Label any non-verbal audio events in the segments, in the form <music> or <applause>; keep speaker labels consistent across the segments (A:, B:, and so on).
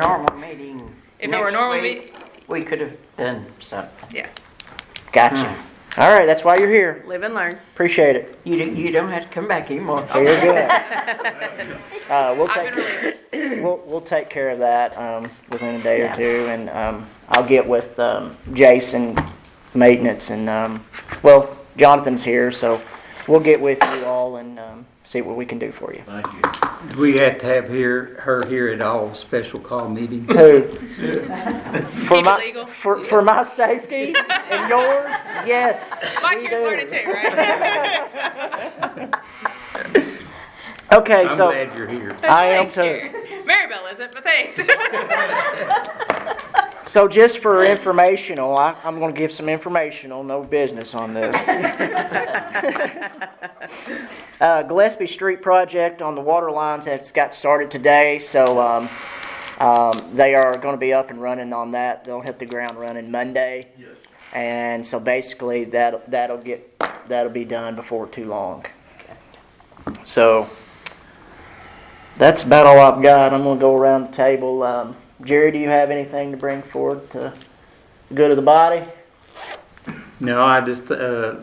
A: normal meeting.
B: If it were a
A: next
B: normal
A: week, We could have done something.
B: Yeah,
C: Gotcha.
B: Hmm.
C: All right, that's why you're here.
B: live and learn.
C: Appreciate it.
A: You, don't- you don't have to come back anymore.
C: So you're good.
B: <laughs>
C: Uh, we'll
B: I've been
C: take,
B: relieved.
C: we'll, we'll take care of that, um, within a day or
A: Yeah.
C: two, and, um, I'll get with, um, Jason Maintenance and, um, well, Jonathan's here, so we'll get with you all and, um, see what we can do for you.
D: Thank you.
E: Do we have to have here, her here at all special
A: <laughs>
E: call meetings?
B: <laughs>
C: So, for
B: Keep it
C: my,
B: legal.
C: for, for my safety
B: <laughs>
C: and yours, yes,
B: Mike,
C: we
B: you're learning
C: do.
B: too, right?
C: Okay,
E: I'm
C: so,
E: glad you're here.
C: I am
B: Thanks,
C: too.
B: Gary. Maribel isn't, but thanks.
C: So just for informational, I, I'm gonna give some informational, no business on this. Uh, Gillespie Street project on the water lines has got started today, so, um, um, they are gonna be up and running on that. They'll hit the ground running Monday. And so basically, that'll, that'll get, that'll be done before too long. So, that's about all I've got. I'm gonna go around the table. Um, Jerry, do you have anything to bring forward to the good of the body?
E: No, I just, uh,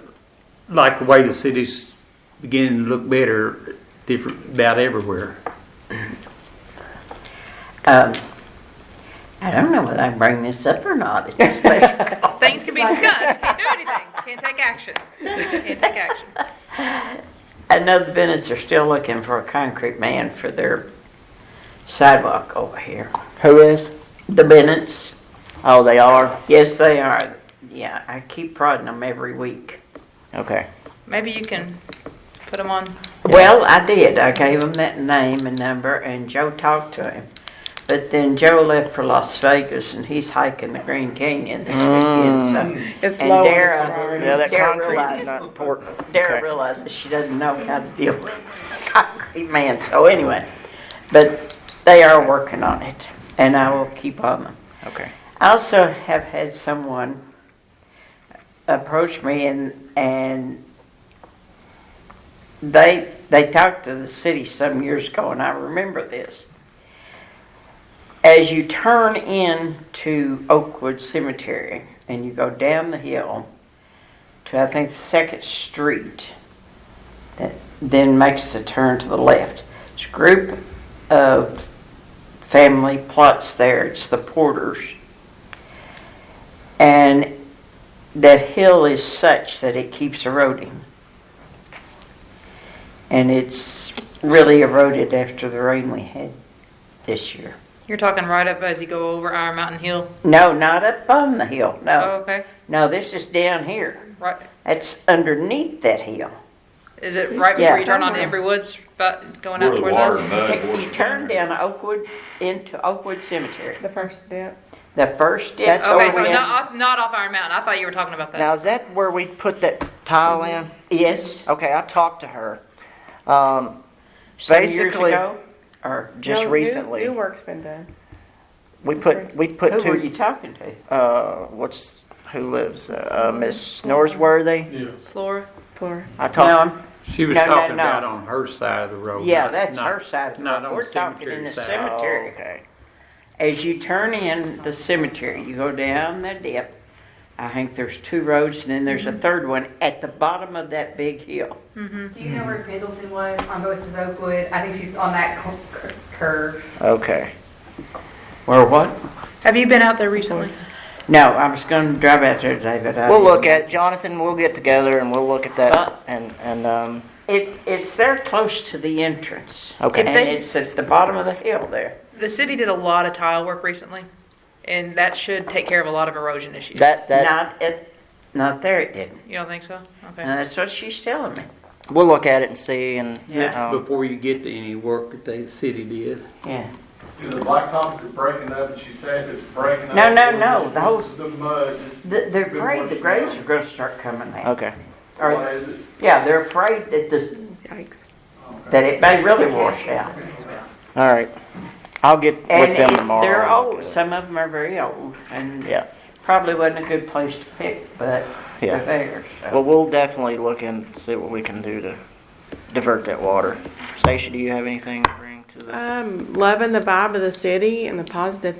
E: like the way the city's beginning to look better, different, about everywhere.
A: Um, I don't know whether I can bring this up or not. It's a
B: <laughs>
A: special call.
B: <laughs> Things can be discussed. Can't do anything. Can't take action. Can't take action.
A: I know the Bennetts are still looking for a concrete man for their sidewalk over here.
C: Who is?
A: The Bennetts,
C: Oh, they are.
A: yes, they are. Yeah, I keep prodding them every week.
C: Okay.
B: Maybe you can put them on.
A: Well, I did. I gave him that name and number, and Joe talked to him. But then Joe left for Las Vegas, and he's hiking the Green Canyon this weekend. So,
F: It's
A: and
F: low on the
A: Dara,
F: Ferrari.
C: Mm. Yeah, that
A: Dara
C: concrete
A: realized,
C: is not important.
A: Dara
C: Okay.
A: realizes she doesn't know how to deal with <laughs> concrete man. So anyway, but they are working on it, and I will keep on them.
C: Okay.
A: I also have had someone approach me and and they they talked to the city some years ago and I remember this. As you turn in to Oakwood Cemetery and you go down the hill to I think the second street that then makes the turn to the left. It's a group of family plots there. It's the Porters. And that hill is such that it keeps eroding. And it's really eroded after the rain we had this year.
B: You're talking right up as you go over our mountain hill. Oh,
A: No, not up on the hill.
C: Oh.
A: No.
B: okay.
A: No, this is down here.
B: Right.
A: It's underneath that hill.
B: Is it right
A: Yeah.
B: before you turn on to Embry Woods, but going out
D: Where
B: towards
D: the water and
B: us?
D: mud washes
A: You turn
D: there.
A: down Oakwood into Oakwood Cemetery.
F: The first step.
A: The first ditch
C: That's
B: Okay,
A: over
B: so not
A: there.
B: off, not off Iron Mountain. I thought you were talking about that.
C: Now, is that where we put that tile in?
A: Yes.
C: Okay, I talked to her. Um,
A: Some years
C: Basically-
A: ago, or
C: just
F: No, new-
C: recently.
F: New work's been done.
C: we put, we put
A: who were
C: two,
A: you talking to?
C: uh, what's, who lives? Uh, Miss Norsworthy?
B: Flora.
F: Flora.
C: I
A: No,
C: talked,
A: I'm
E: She was
A: No, no,
E: talking
A: no.
E: about on her side of the road.
A: Yeah,
E: not-
A: that's
E: not-
A: her side of the
E: not
A: road.
E: on
A: We're talking in
E: cemetery
A: the
E: side.
A: cemetery.
C: oh, okay.
A: As you turn in the cemetery, you go down the dip. I think there's two roads, and then there's
C: Mm-hmm.
A: a third one at the bottom of that big hill.
G: Do you know where Middleton was on Voices Oakwood? I think she's on that cur- cur- curve.
C: Okay.
A: Or what?
B: Have you been out there recently?
A: No, I was going to drive out there today, but I
C: We'll look
A: didn't.
C: at, Jonathan, we'll get together and we'll look at
A: Uh,
C: that and, and, um,
A: it. It's there close to the entrance.
C: Okay.
A: and it's at the bottom of the hill there.
B: The city did a lot of tile work recently, and that should take care of a lot of erosion issues.
C: that, that.
A: not at, not there. It didn't.
B: You don't think so? Okay.
A: And that's what she's telling me.
C: We'll look at it and see, and
A: Yeah.
C: um,
E: Before you get to any work that the city did.
A: Yeah.
H: Is it blacktop, is it breaking up, and she said it's breaking up?
A: No, no,
H: or is
A: no,
H: it
A: the whole-
H: just The mud, just.
A: The, they're
H: been
A: afraid the
H: washing
A: graves are
H: down?
A: going to start coming out.
C: okay.
A: Or-
H: Why is it?
A: Yeah, they're afraid that this
F: Yikes.
A: that it may really wash out.
C: All right. I'll get
A: And
C: with them
A: it-
C: tomorrow.
A: they're
C: and look
A: old.
C: at it.
A: Some of them are very old, and
C: Yeah.
A: probably wasn't a good place to pick, but
C: Yeah.
A: they're there. So.
C: Well, we'll definitely look and see what we can do to divert that water. Stacia, do you have anything to bring to
D: um, loving the vibe of the city and the positive